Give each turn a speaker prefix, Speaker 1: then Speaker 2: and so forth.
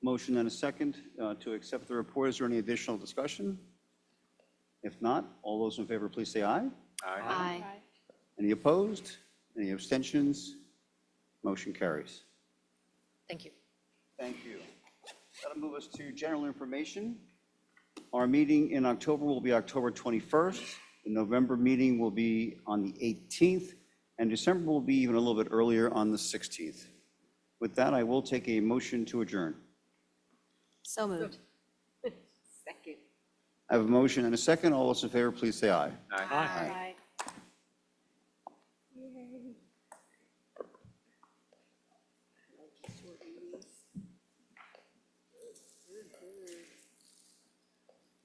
Speaker 1: Motion and a second uh, to accept the report. Is there any additional discussion? If not, all those in favor, please say aye.
Speaker 2: Aye.
Speaker 1: Any opposed? Any abstentions? Motion carries.
Speaker 2: Thank you.
Speaker 1: Thank you. That'll move us to general information. Our meeting in October will be October 21st. The November meeting will be on the 18th, and December will be even a little bit earlier on the 16th. With that, I will take a motion to adjourn.
Speaker 2: So moved.
Speaker 3: Second.
Speaker 1: I have a motion and a second. All those in favor, please say aye.
Speaker 3: Aye.